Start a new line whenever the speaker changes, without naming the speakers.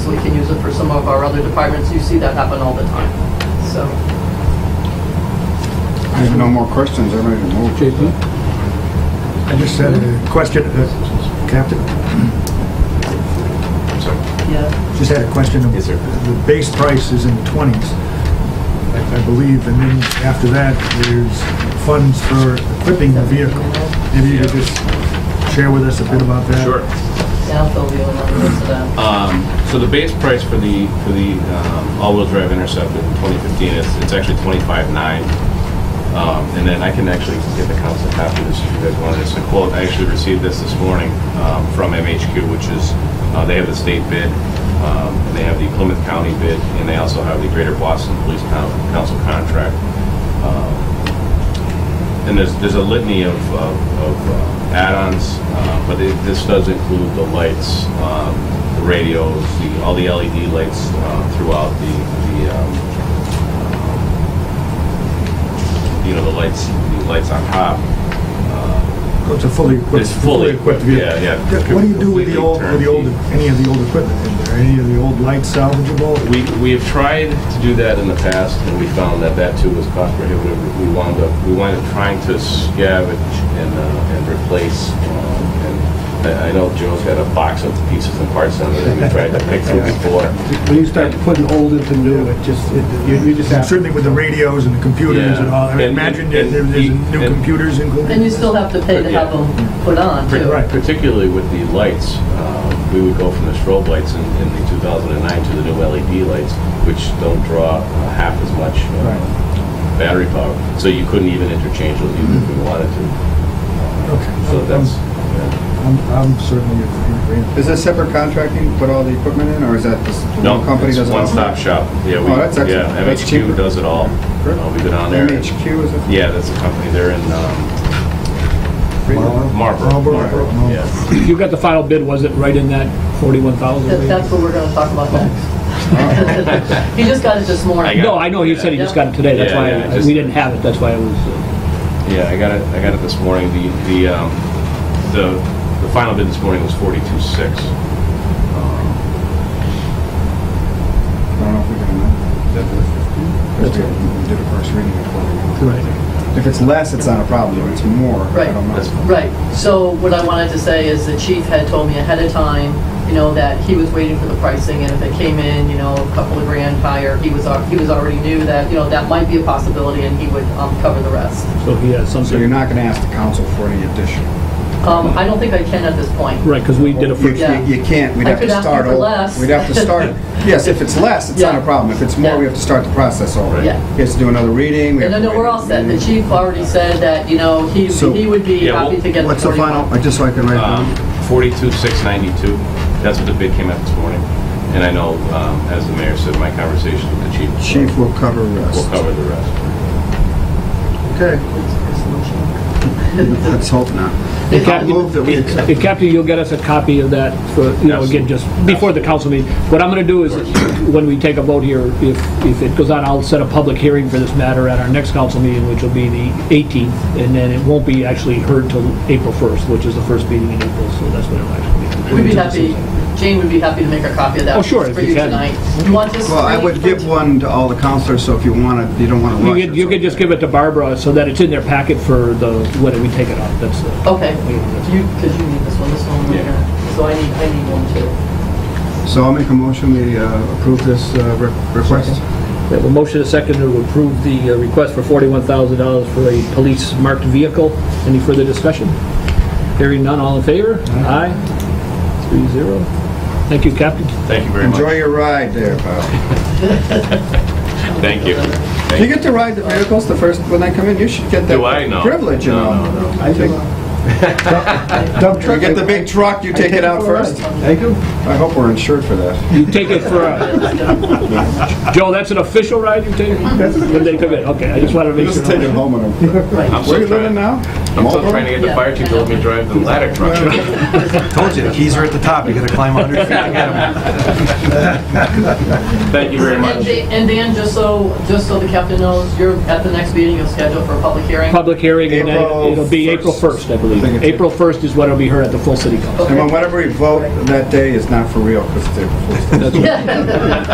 some of our other departments, you see that happen all the time, so.
I have no more questions, I'm ready to move.
JP?
I just had a question, uh, Captain,
Yeah,
just had a question.
Yes, sir.
The base price is in the 20s, I I believe, and then after that, there's funds for equipping the vehicle. Maybe you could just share with us a bit about that?
Sure.
yeah, I'll fill you in on most of that.
Um, So the base price for the, for the um, all-wheel drive Intercept in 2015, it's, it's actually 25.9. Um, And then I can actually get the council copy of this if you guys want. It's a quote, I actually received this this morning um, from MHQ, which is, uh, they have the state bid, um, and they have the Plymouth County bid, and they also have the Greater Boston Police Coun- Council contract. Um, And there's, there's a litany of, of of, uh, add-ons, uh, but it- this does include the lights, um, the radios, the, all the LED lights uh, throughout the, the, um, um, you know, the lights, the lights on top.
So It's a fully equipped,
It's fully-
fully equipped vehicle?
yeah, yeah.
What do you do with the old, with the old, any of the old equipment in there? Any of the old lights salvageable?
We, we have tried to do that in the past, and we found that that too was cost prohibitive. We wound up, we wound up trying to scavenge and, uh, and replace, um, and I- I know Joe's got a box of pieces and parts on it that we tried to pick through before.
When you start putting old into new, it just, it- you you just have,
Certainly with the radios and the computers and
Yeah.
all, I
And-
imagine there-
and-
there- there's
and-
new
and-
computers included?
And you still have to pay to have them put on, too.
Right.
Particularly with the lights, uh, we would go from the strobe lights in in the 2009 to the new LED lights, which don't draw uh, half as much uh, battery power. So you couldn't even interchange those even if we wanted
Okay.
to.
Um,
So that's,
I'm, I'm certainly in agreement.
Is this separate contracting, put all the equipment in, or is that just
no,
one company
it's
does it all?
one-stop shop. Yeah, we-
Oh, that's excellent.
yeah,
That's cheaper.
MHQ does it all. Uh, We've been on there.
MHQ is it?
Yeah, that's a company. They're in um,
Marlboro?
Marlboro.
Marlboro,
Oh.
Marlboro.
Yeah.
you got the final bid, was it right in that 41,000?
That- That's what we're gonna talk about next. He just got it this morning.
I got
No, I know, he said he just got it today, that's
Yeah,
why,
yeah,
I-
just-
we didn't have it, that's why I was, uh,
Yeah, I got it, I got it this morning. The, the, um, the, the final bid this morning was forty-two six.
I don't know if we can amend it. We did a first reading before.
Right.
If it's less, it's not a problem, if it's more, I
Right.
don't
That's-
know.
Right, so what I wanted to say is the chief had told me ahead of time, you know, that he was waiting for the pricing, and if it came in, you know, a couple of grand higher, he was, al- he was already knew that, you know, that might be a possibility, and he would um, cover the rest.
so he has
So you're
something.
not gonna ask the council for any additional?
Um,
Uh-huh.
I don't think I can at this point.
Right, because we did a
You-
first,
Yeah.
You you can't, we'd
I
have to
could ask
start
them for
over.
less.
We'd have to start, yes, if it's less, it's not
Yeah.
a problem, if it's more, we
Yeah.
have to start the process over.
Yeah.
He has to do another reading. we
And
have
then
to
we're
wait.
all set, the chief already said that, you know, he,
So-
he would be
Yeah,
happy
well,
to get the
What's the final,
41.
just so I can write it down?
Um, forty-two six ninety-two, that's what the bid came out this morning. And I know, um, as the mayor said, my conversation with the chief. uh,
Chief will cover rest.
Will cover the rest.
Okay, let's hope not.
It
I'll
kept-
move that we accept.
If Captain, you'll get us a copy of that for, you know, again, just before the council meeting. What I'm going to do is, when we take a vote here, if, if it goes on, I'll set a public hearing for this matter at our next council meeting, which will be the 18th, and then it won't be actually heard till April 1st, which is the first meeting in April, so that's when it'll actually be.
We'd be happy, Jane would be happy to make a copy of that.
Oh, sure, if
For
you
you
can.
tonight. You want this?
Well, I
for-
would
for-
give one to all the counselors, so if you want to, you don't want to
You
rush.
could, you could just give it to Barbara so that it's in their packet for the, when we take it up, that's, uh,
Okay, you, because you need this one, this one, we're
Yeah.
gonna- so I need, I need one too.
So I'll make a motion, we uh, approve this uh, re- request.
we have a motion to second to approve the uh, request for $41,000 for a police-marked vehicle. Any further discussion? Hearing none, all in favor? Aye. Three zero. Thank you, Captain.
Thank you very much.
Enjoy your ride there, Bob.
Thank you.
Do you get to ride the vehicles the first, when they come in? You should get that
Do I? No.
privilege, you
No,
know.
no,
I think,
Dump
you
truck.
get the big truck, you take it out first.
I do.
I hope we're insured for that.
You take it for a, Joe, that's an official ride you take? When they took it, okay, I just wanted to make
Just take it
sure.
home with them.
I'm
Where
still
you living
trying,
now?
I'm still trying to get the
Yeah.
fire chief to let me drive the ladder truck.
Told you, the keys are at the top, you gotta climb 100 feet to get them.
Thank you very
And
much.
Dan- And Dan, just so, just so the captain knows, you're, at the next meeting, you'll schedule for a public hearing?
Public hearing, and then
April
it'll be April
1st.
1st, I
I think
believe.
it's-
April 1st is when it'll be heard at the full city council.
And when whatever we vote that day is not for real, because they're...
Yeah.